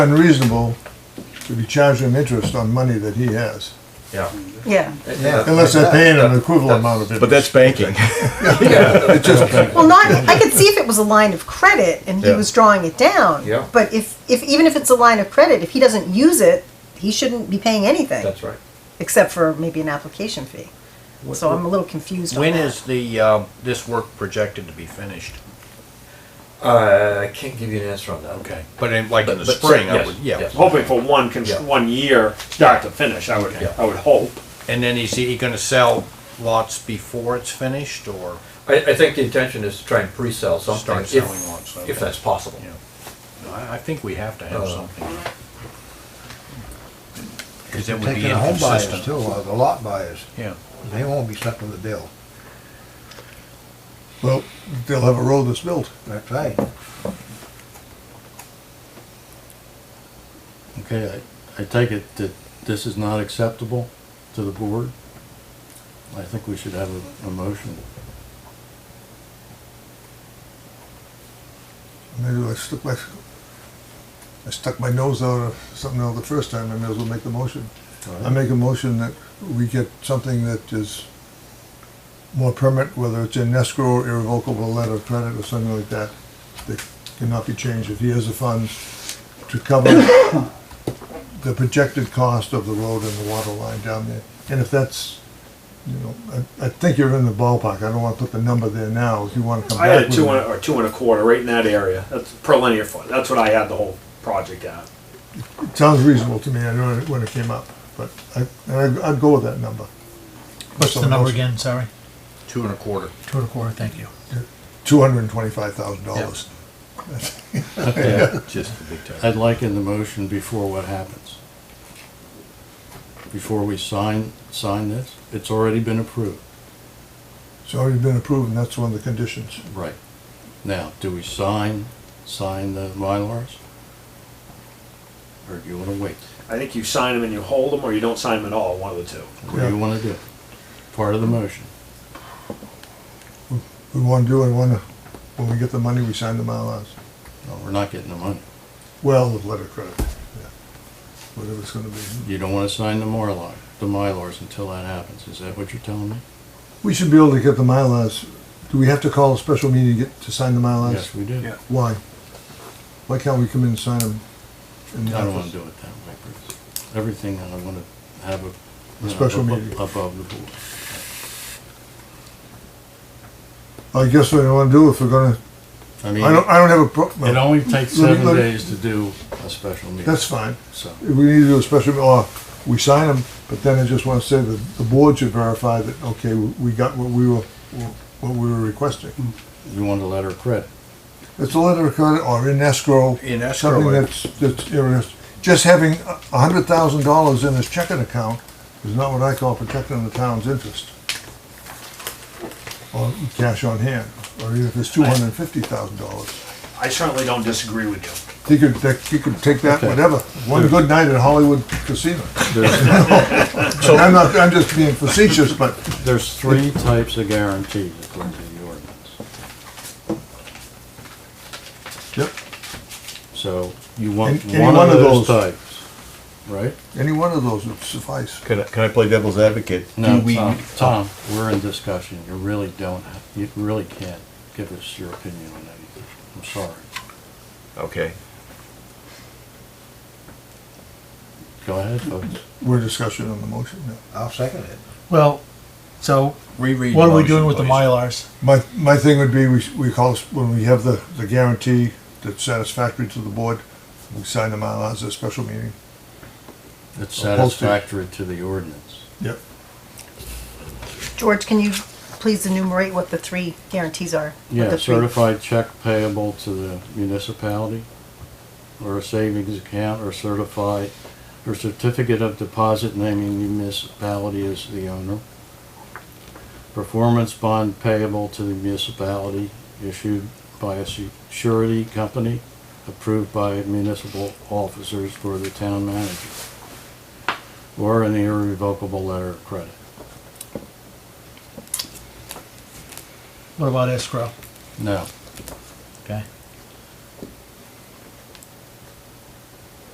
unreasonable to be charging him interest on money that he has. Yeah. Yeah. Unless they're paying an equivalent amount of interest. But that's banking. Well, not, I could see if it was a line of credit and he Yeah. was drawing it down. Yeah. But if, if, even if it's a line of credit, if he doesn't use it, he shouldn't be paying anything. That's right. Except for maybe an application fee. So I'm a little confused on When that. is the, uh, this work projected to be finished? Uh, I can't give you an answer on that. Okay, but in, like in the But- but- spring, I Yes, would, yeah. yes. Hoping for one, cons- Yeah. one year, start to finish, I would, Yeah. I would hope. And then is he gonna sell lots before it's finished, or? I, I think the intention is to try and pre-sell something Start if, selling lots, okay. if that's possible. Yeah. No, I, I think we have to have Uh, something. Cause it would Taking be the home buyers too, inconsistent. or the lot buyers, Yeah, they won't be stuck with the bill, Well, they'll have a road that's built. that's right. Okay, I, I take it that this is not acceptable to the board? I think we should have a, a motion. Maybe I stuck my, I stuck my nose out of something else the first time, I may as well make the motion. I make a motion that we get something that is more permanent, whether it's an escrow or irrevocable letter of credit or something like that, that cannot be changed if he has the funds to cover the projected cost of the road and the water line down there. And if that's, you know, I, I think you're in the ballpark. I don't wanna put the number there now. If you wanna come I back had a with two it. and, or two and a quarter, right in that area, that's per linear foot, that's what I had the whole project at. Sounds reasonable to me, I know it when it came up, but I, and I'd, I'd go with that number. What's the number again, sorry? two and a quarter. Two and a quarter, thank you. Two hundred and twenty-five thousand dollars. Just a big time. I'd like in the motion before what happens. Before we sign, sign this, it's already been approved. It's already been approved, and that's one of the conditions. Right. Now, do we sign, sign the Mylars? Or do you wanna wait? I think you sign them and you hold them, or you don't sign them at all, one of the two. What do you wanna do? Part of the motion. We wanna do, and wanna, when we get the money, we sign the MyLars. No, we're not getting the money. Well, with letter of credit, yeah, whatever it's gonna be. You don't wanna sign the Mylar, the Mylars until that happens. Is that what you're telling me? We should be able to get the MyLars, do we have to call a special meeting to get, to sign the MyLars? Yes, we do. Yeah. Why? Why can't we come in and sign them? in the I don't want office? to do it that way, Bruce. Everything I want to have a. you know, Special abo- meeting. Above the board. I guess what I wanna do, if we're gonna, I I don't, mean, I don't have a pro. well, it only takes let me- seven let me- days to do a special meeting. That's fine. So, If we need to do a special, or we sign them, but then I just want to say that the board should verify that, okay, we got what we were, what we were requesting. Mm-hmm. you want a letter of credit. It's a letter of credit or in escrow. In escrow, Something I- that's, that's, you know, it's- just having a hundred thousand dollars in his checking account is not what I call protecting the town's interest. Or cash on hand, or even if it's two hundred and fifty thousand dollars. I certainly don't disagree with you. He could, he could take that, Okay. whatever. One good night at Hollywood Casino. There's, And I'm not, I'm just being facetious, but there's three types of guarantees according to the ordinance. Yep, So you want Any- any one one of of those those. types, right? any one of those would suffice. Can I, can I play devil's advocate? Do No, we- Tom, Tom, we're in discussion. You really don't, you really can't give us your opinion on anything. I'm sorry. Okay, Go ahead, folks. We're discussing on the motion now. I'll second it. Well, so Reread. what the are we doing with motion, the please. Mylars? My, my thing would be, we, s- we call, s- when we have the, the guarantee that's satisfactory to the board, we sign them out as a special meeting. It's Or posted. satisfactory to the ordinance. Yep. George, can you please enumerate what the three guarantees are? What Yeah, the three- certified check payable to the municipality, or a savings account, or certified, or certificate of deposit naming municipality as the owner. Performance bond payable to the municipality issued by a su- surety company approved by municipal officers for the town manager. Or an irrevocable letter of credit. What about escrow? No, Okay.